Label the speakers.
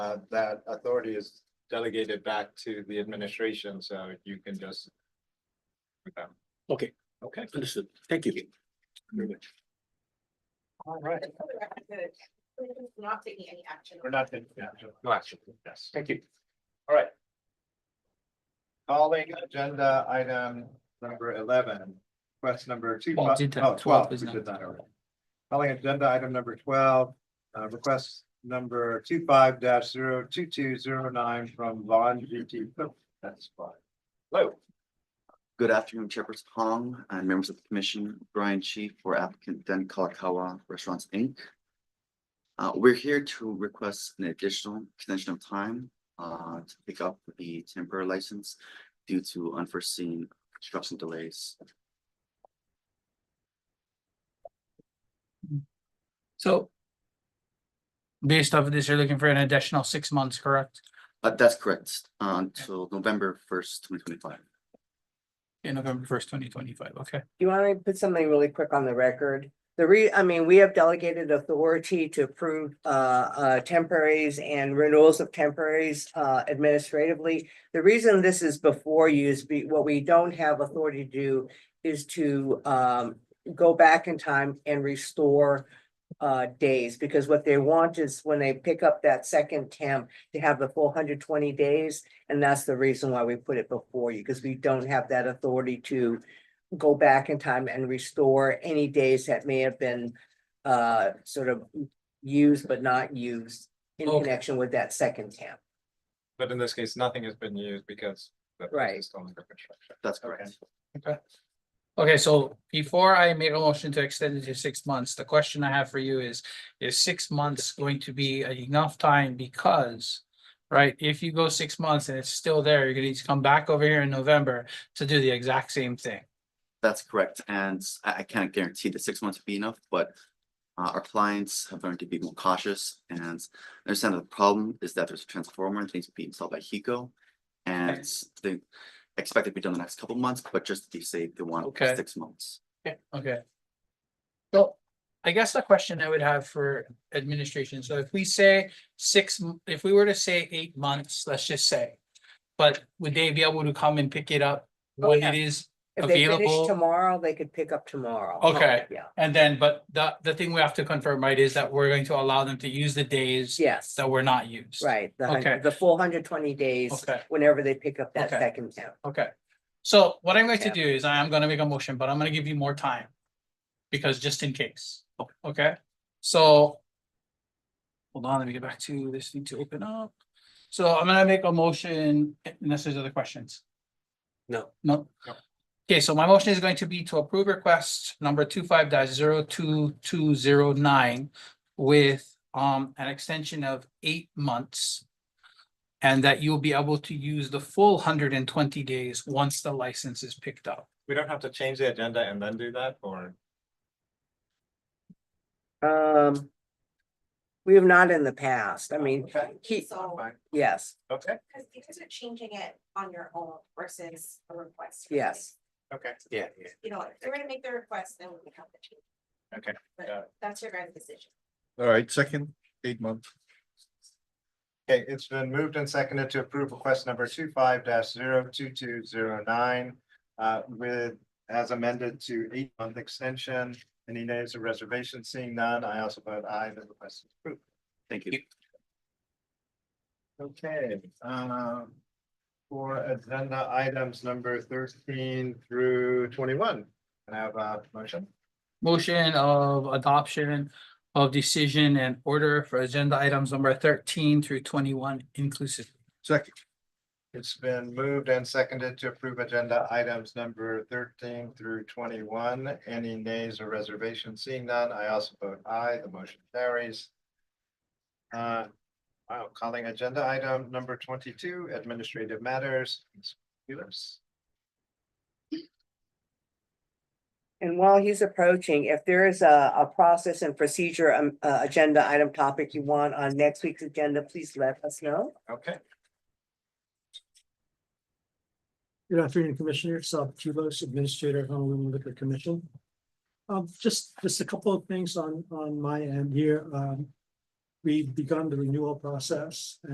Speaker 1: uh, that authority is delegated back to the administration, so you can just. with them.
Speaker 2: Okay,
Speaker 1: Okay.
Speaker 2: understood. Thank you. Very much.
Speaker 1: All right.
Speaker 3: Just for the record, that we're Not taking any action.
Speaker 1: We're not taking action. No action. Yes.
Speaker 2: Thank you.
Speaker 1: All right. Calling agenda item number eleven, request number two.
Speaker 4: Well, did that-
Speaker 1: oh,
Speaker 4: 12
Speaker 1: 12,
Speaker 4: is
Speaker 1: we
Speaker 4: not-
Speaker 1: did that already. Calling agenda item number twelve, uh, request number two five dash zero two two zero nine from Vaughn GT. Cook. That's fine. Hello.
Speaker 5: Good afternoon, Chairperson Hong and members of the commission, Brian Chief for applicant Den Kalakaua Restaurants, Inc. Uh, we're here to request an additional extension of time uh to pick up the temporary license due to unforeseen construction delays.
Speaker 4: So. Based off of this, you're looking for an additional six months, correct?
Speaker 5: Uh, that's correct, uh, until November first, twenty twenty-five.
Speaker 4: In November first, twenty twenty-five, okay?
Speaker 6: You want me to put something really quick on the record? The re, I mean, we have delegated authority to approve uh uh temporaries and renewals of temporaries uh administratively. The reason this is before you is be, what we don't have authority to do is to um go back in time and restore uh days, because what they want is when they pick up that second temp to have the full hundred twenty days. And that's the reason why we put it before you, because we don't have that authority to go back in time and restore any days that may have been uh sort of used but not used in
Speaker 4: Okay.
Speaker 6: connection with that second camp.
Speaker 1: But in this case, nothing has been used because. the place
Speaker 6: Right.
Speaker 1: is still under construction.
Speaker 5: That's correct.
Speaker 4: Okay, so before I make a motion to extend it to six months, the question I have for you is, is six months going to be enough time because? Right, if you go six months and it's still there, you're gonna need to come back over here in November to do the exact same thing.
Speaker 5: That's correct, and I, I can't guarantee that six months will be enough, but uh, our clients have learned to be more cautious and understand that the problem is that there's a transformer and things being installed by Hiko. And they expect it to be done in the next couple of months, but just to be safe, they want
Speaker 4: Okay.
Speaker 5: six months.
Speaker 4: Yeah. Okay. So I guess the question I would have for administration, so if we say six, m- if we were to say eight months, let's just say. But would they be able to come and pick it up
Speaker 6: Oh,
Speaker 4: when
Speaker 6: yeah.
Speaker 4: it is,
Speaker 6: If they
Speaker 4: Available-
Speaker 6: finish tomorrow, they could pick up tomorrow. Oh,
Speaker 4: Okay.
Speaker 6: Yeah,
Speaker 4: and then, but the, the thing we have to confirm, right, is that we're going to allow them to use the days
Speaker 6: yes,
Speaker 4: that were not used.
Speaker 6: right, the
Speaker 4: Okay.
Speaker 6: hundred, the full hundred twenty days,
Speaker 4: Okay.
Speaker 6: whenever they pick up that
Speaker 4: Okay.
Speaker 6: second camp.
Speaker 4: Okay, so what I'm going to
Speaker 6: Yeah.
Speaker 4: do is I am gonna make a motion, but I'm gonna give you more time. Because just in case, okay, so. Hold on, let me get back to this thing to open up. So I'm gonna make a motion, unless there's other questions.
Speaker 2: No.
Speaker 4: No.
Speaker 1: No.
Speaker 4: Okay, so my motion is going to be to approve request number two five dash zero two two zero nine. With um an extension of eight months. And that you'll be able to use the full hundred and twenty days once the license is picked up.
Speaker 1: We don't have to change the agenda and then do that, or?
Speaker 6: Um. We have not in the past, I mean,
Speaker 1: Okay.
Speaker 6: he,
Speaker 3: So,
Speaker 1: Fine.
Speaker 6: yes,
Speaker 1: Okay,
Speaker 3: because you guys are changing it on your own versus a request.
Speaker 6: yes,
Speaker 1: okay.
Speaker 2: Yeah,
Speaker 3: You know, if you're gonna make the request, then we can have the change.
Speaker 1: Okay, got
Speaker 3: But that's your guys' decision.
Speaker 7: All right, second, eight month.
Speaker 1: Okay, it's been moved and seconded to approve request number two five dash zero two two zero nine. Uh, with, as amended to eight month extension, any names or reservations, seeing none, I also vote aye, the request is approved.
Speaker 5: Thank you.
Speaker 1: Okay, um. For agenda items number thirteen through twenty-one, can I have a motion?
Speaker 4: Motion of adoption of decision and order for agenda items number thirteen through twenty-one inclusive.
Speaker 7: Second,
Speaker 1: It's been moved and seconded to approve agenda items number thirteen through twenty-one. Any nays or reservations? Seeing none, I also vote aye. The motion carries. Uh, wow, calling agenda item number twenty-two, administrative matters. Ms. Felix.
Speaker 6: and while he's approaching, if there is a a process and procedure. Um, uh, agenda item topic you want on next week's agenda, please let us know.
Speaker 1: Okay,
Speaker 8: Good afternoon, Commissioner Sal Kilos, Administrator, Honolulu Liquor Commission. Um, just, just a couple of things on, on my end here. Um, we've begun the renewal process